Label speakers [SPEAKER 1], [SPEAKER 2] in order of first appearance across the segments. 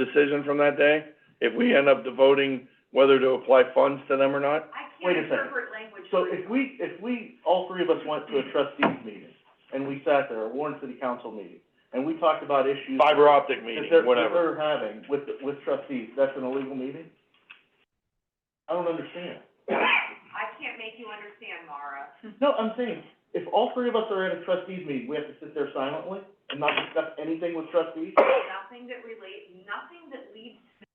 [SPEAKER 1] decision from that day, if we end up devoting whether to apply funds to them or not,
[SPEAKER 2] I
[SPEAKER 3] Wait
[SPEAKER 2] can't
[SPEAKER 3] a second.
[SPEAKER 2] interpret language.
[SPEAKER 3] So
[SPEAKER 2] for
[SPEAKER 3] if
[SPEAKER 2] you.
[SPEAKER 3] we, if we, all three of us went to a trustees meeting, and we sat there, a Warren City Council meeting, and we talked about issues.
[SPEAKER 1] fiber optic
[SPEAKER 3] That
[SPEAKER 1] meeting,
[SPEAKER 3] they're, that
[SPEAKER 1] whatever.
[SPEAKER 3] they're having with, the- with trustees, that's an illegal meeting? I don't understand.
[SPEAKER 2] I can't make you understand, Mara.
[SPEAKER 3] No, I'm saying, if all three of us are at a trustees meeting, we have to sit there silently and not discuss anything with trustees?
[SPEAKER 2] Nothing that relate, nothing that leads to.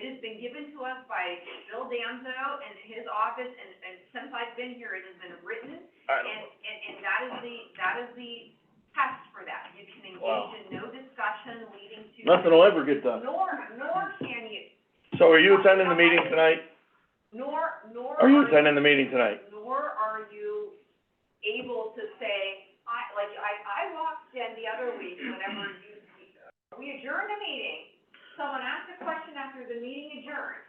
[SPEAKER 2] It has been given to us by Bill Danzo and his office, and, and since I've been here, it has been written,
[SPEAKER 1] I
[SPEAKER 2] and,
[SPEAKER 1] don't-
[SPEAKER 2] and, and that is the, that is the test for that. You can
[SPEAKER 3] Wow.
[SPEAKER 2] engage in no discussion leading to.
[SPEAKER 3] Nothing will ever get done.
[SPEAKER 2] Nor, nor can you,
[SPEAKER 1] So are you attending the meeting tonight?
[SPEAKER 2] nor, nor.
[SPEAKER 1] Are you attending the meeting tonight?
[SPEAKER 2] nor are you able to say, I, like, I, I walked in the other week whenever you, we adjourned a meeting. Someone asked a question after the meeting adjourned,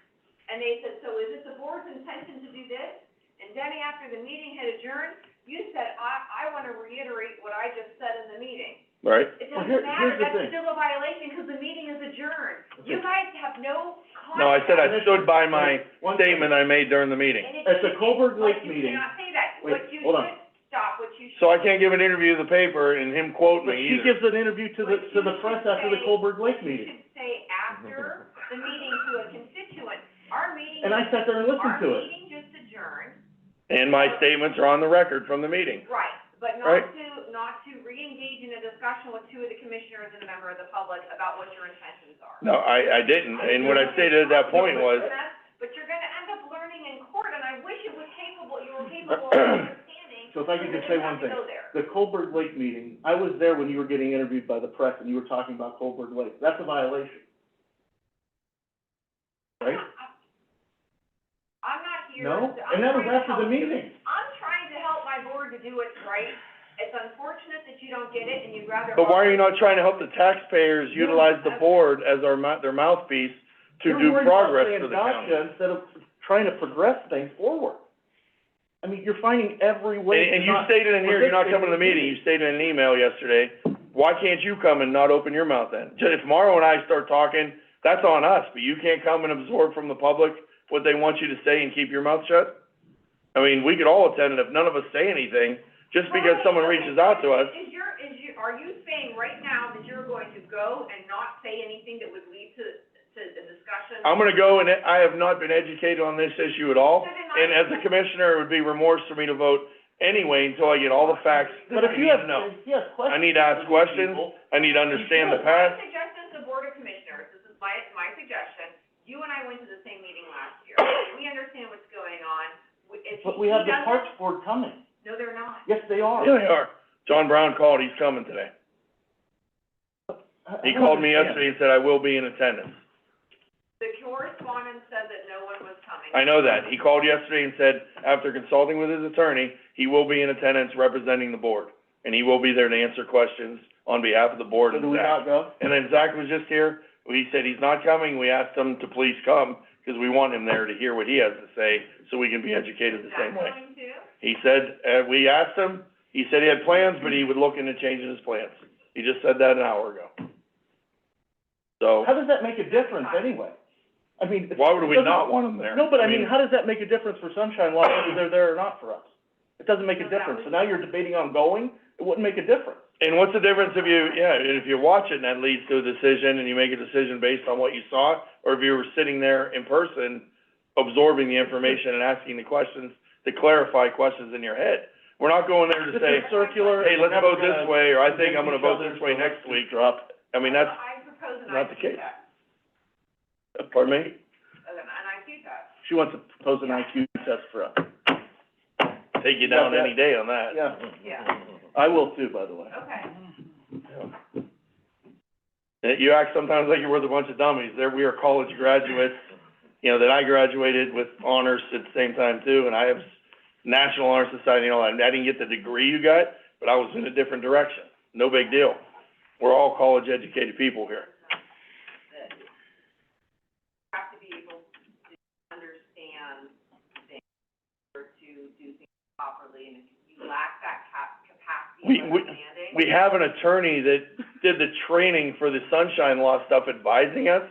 [SPEAKER 2] and they said, so is it the board's intention to do this? And Denny, after the meeting had adjourned, you said, I, I wanna reiterate what I just said in the meeting.
[SPEAKER 1] Right?
[SPEAKER 2] It
[SPEAKER 3] Well,
[SPEAKER 2] doesn't
[SPEAKER 3] here-
[SPEAKER 2] matter,
[SPEAKER 3] here's the
[SPEAKER 2] that's
[SPEAKER 3] thing.
[SPEAKER 2] still a violation, 'cause the meeting is adjourned. You
[SPEAKER 3] Okay.
[SPEAKER 2] guys have no concept.
[SPEAKER 1] No, I said I stood by my
[SPEAKER 3] One thing-
[SPEAKER 1] statement I made during the meeting.
[SPEAKER 2] And it-
[SPEAKER 3] At the Colberg
[SPEAKER 2] like,
[SPEAKER 3] Lake
[SPEAKER 2] you
[SPEAKER 3] meeting,
[SPEAKER 2] cannot say that.
[SPEAKER 3] Wait,
[SPEAKER 2] What you
[SPEAKER 3] hold on.
[SPEAKER 2] should stop, what you should.
[SPEAKER 1] So I can't give an interview to the paper and him quote
[SPEAKER 3] but
[SPEAKER 1] me
[SPEAKER 3] she
[SPEAKER 1] either.
[SPEAKER 3] gives an interview to the, to the press after the Colberg Lake
[SPEAKER 2] You
[SPEAKER 3] meeting,
[SPEAKER 2] should say after the meeting to a constituent, our meeting.
[SPEAKER 3] and I sat there and listened to
[SPEAKER 2] Our
[SPEAKER 3] it.
[SPEAKER 2] meeting just adjourned,
[SPEAKER 1] And my statements are on the record from the meeting.
[SPEAKER 2] right, but
[SPEAKER 1] Right.
[SPEAKER 2] not to, not to re-engage in a discussion with two of the commissioners and a member of the public about what your intentions are.
[SPEAKER 1] No, I, I didn't, and what I stated at that point was,
[SPEAKER 2] But you're gonna end up learning in court, and I wish it was capable, you were capable of understanding.
[SPEAKER 3] So if I could just
[SPEAKER 2] that you
[SPEAKER 3] say one
[SPEAKER 2] have to
[SPEAKER 3] thing.
[SPEAKER 2] go there.
[SPEAKER 3] The Colberg Lake meeting, I was there when you were getting interviewed by the press and you were talking about Colberg Lake, that's a violation. Right?
[SPEAKER 2] I'm not here.
[SPEAKER 3] No?
[SPEAKER 2] to- I'm
[SPEAKER 3] And that was
[SPEAKER 2] trying to
[SPEAKER 3] after
[SPEAKER 2] help you.
[SPEAKER 3] the meeting.
[SPEAKER 2] I'm trying to help my board to do what's right. It's unfortunate that you don't get it and you'd rather.
[SPEAKER 1] but why are you not trying to help the taxpayers utilize the board as our mou- their mouthpiece to do progress for the county?
[SPEAKER 3] You're worried about saying gotcha instead of trying to progress things forward. I mean, you're finding every way
[SPEAKER 1] And, and
[SPEAKER 3] to
[SPEAKER 1] you
[SPEAKER 3] not,
[SPEAKER 1] stated in here, you're not
[SPEAKER 3] participate
[SPEAKER 1] coming to
[SPEAKER 3] in
[SPEAKER 1] the
[SPEAKER 3] the
[SPEAKER 1] meeting, you
[SPEAKER 3] meeting.
[SPEAKER 1] stated in an email yesterday, why can't you come and not open your mouth then? Ju- If Morrow and I start talking, that's on us, but you can't come and absorb from the public what they want you to say and keep your mouth shut? I mean, we could all attend, and if none of us say anything, just because
[SPEAKER 2] Right,
[SPEAKER 1] someone
[SPEAKER 2] okay.
[SPEAKER 1] reaches out to us,
[SPEAKER 2] Is your, is you, are you saying right now that you're going to go and not say anything that would lead to, to the discussion?
[SPEAKER 1] I'm gonna go and I have not been educated on this issue at all.
[SPEAKER 2] So then I-
[SPEAKER 1] And as a commissioner, it would be remorse for me to vote anyway until I get all the facts that
[SPEAKER 3] but
[SPEAKER 1] I
[SPEAKER 3] if you
[SPEAKER 1] need
[SPEAKER 3] have,
[SPEAKER 1] to know.
[SPEAKER 3] if you have questions.
[SPEAKER 1] I need to ask questions.
[SPEAKER 3] people,
[SPEAKER 1] I need to understand the
[SPEAKER 3] should.
[SPEAKER 1] past,
[SPEAKER 2] My suggestion to the Board of Commissioners, this is my, my suggestion, you and I went to the same meeting last year. We understand what's going on. We- If he,
[SPEAKER 3] But we have
[SPEAKER 2] he
[SPEAKER 3] the Parks
[SPEAKER 2] doesn't-
[SPEAKER 3] Board coming,
[SPEAKER 2] No, they're not.
[SPEAKER 3] yes, they are.
[SPEAKER 1] Yeah, they Oh, are. John Brown called, he's coming today.
[SPEAKER 3] I- I
[SPEAKER 1] He
[SPEAKER 3] don't
[SPEAKER 1] called me
[SPEAKER 3] understand.
[SPEAKER 1] yesterday and said, I will be in attendance.
[SPEAKER 2] The correspondence said that no one was coming.
[SPEAKER 1] I know that. He called yesterday and said, after consulting with his attorney, he will be in attendance representing the board. And he will be there to answer questions on behalf of the board
[SPEAKER 3] So
[SPEAKER 1] and
[SPEAKER 3] do we
[SPEAKER 1] Zach.
[SPEAKER 3] not go?
[SPEAKER 1] And then Zach was just here, he said he's not coming, we asked him to please come, because we want him there to hear what he has to say, so we can be educated the same way.
[SPEAKER 2] Is that going to?
[SPEAKER 1] He said, uh, we asked him, he said he had plans, but he would look into changing his plans. He just said that an hour ago. So.
[SPEAKER 3] How does that make a difference anyway? I mean. it-
[SPEAKER 1] Why would we
[SPEAKER 3] it doesn't-
[SPEAKER 1] not want them there?
[SPEAKER 3] No, but I mean, how does that make a difference for Sunshine Law, whether they're there or not for us? It doesn't make a
[SPEAKER 2] No, that
[SPEAKER 3] difference, so
[SPEAKER 2] would-
[SPEAKER 3] now you're debating on going, it wouldn't make a difference.
[SPEAKER 1] And what's the difference if you, yeah, and if you watch it and that leads to a decision and you make a decision based on what you saw, or if you were sitting there in person absorbing the information and asking the questions to clarify questions in your head? We're not going there to
[SPEAKER 3] This
[SPEAKER 1] say,
[SPEAKER 3] is circular.
[SPEAKER 1] hey, let's
[SPEAKER 3] we're never
[SPEAKER 1] vote this
[SPEAKER 3] gonna
[SPEAKER 1] way, or I think
[SPEAKER 3] convince
[SPEAKER 1] I'm gonna
[SPEAKER 3] each
[SPEAKER 1] vote
[SPEAKER 3] other,
[SPEAKER 1] this way
[SPEAKER 3] so let's
[SPEAKER 1] next
[SPEAKER 3] just
[SPEAKER 1] week.
[SPEAKER 3] Drop.
[SPEAKER 1] I mean, that's,
[SPEAKER 2] I propose an
[SPEAKER 1] not the
[SPEAKER 2] IQ
[SPEAKER 1] case.
[SPEAKER 2] test.
[SPEAKER 1] pardon me?
[SPEAKER 2] An an IQ test.
[SPEAKER 3] She wants to propose an IQ test for us.
[SPEAKER 1] Take you down
[SPEAKER 3] Yeah.
[SPEAKER 1] any day on that.
[SPEAKER 3] Yeah,
[SPEAKER 2] Yeah,
[SPEAKER 3] I will too, by the way.
[SPEAKER 2] okay.
[SPEAKER 1] Uh, You act sometimes like you're with a bunch of dummies. There, we are college graduates, you know, that I graduated with honors at the same time too, and I have s- National Honor Society and all that. And I didn't get the degree you got, but I was in a different direction. No big deal. We're all college-educated people here.
[SPEAKER 2] That you Have to be able to understand things or to do things properly, and if you lack that cap- capacity
[SPEAKER 1] We-
[SPEAKER 2] of
[SPEAKER 1] we-
[SPEAKER 2] understanding.
[SPEAKER 1] We have an attorney that did the training for the sunshine law stuff advising us,